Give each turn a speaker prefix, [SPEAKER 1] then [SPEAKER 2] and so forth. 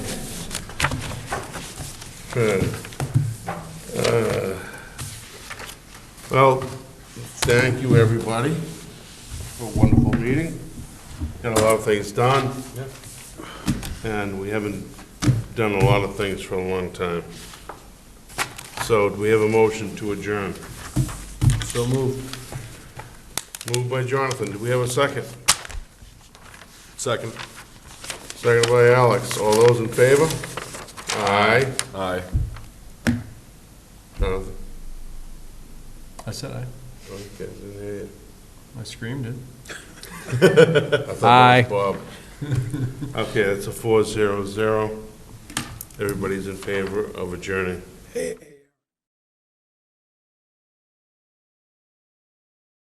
[SPEAKER 1] Good. Uh, Well, thank you, everybody, for a wonderful meeting. Got a lot of things done. And we haven't done a lot of things for a long time. So do we have a motion to adjourn? So moved. Moved by Jonathan. Do we have a second?
[SPEAKER 2] Second.
[SPEAKER 1] Second by Alex. All those in favor? Aye.
[SPEAKER 2] Aye.
[SPEAKER 1] Jonathan?
[SPEAKER 3] I said I.
[SPEAKER 1] Okay, didn't hear you.
[SPEAKER 3] I screamed it.
[SPEAKER 1] I thought that was Bob. Okay, that's a four zero zero. Everybody's in favor of adjourning.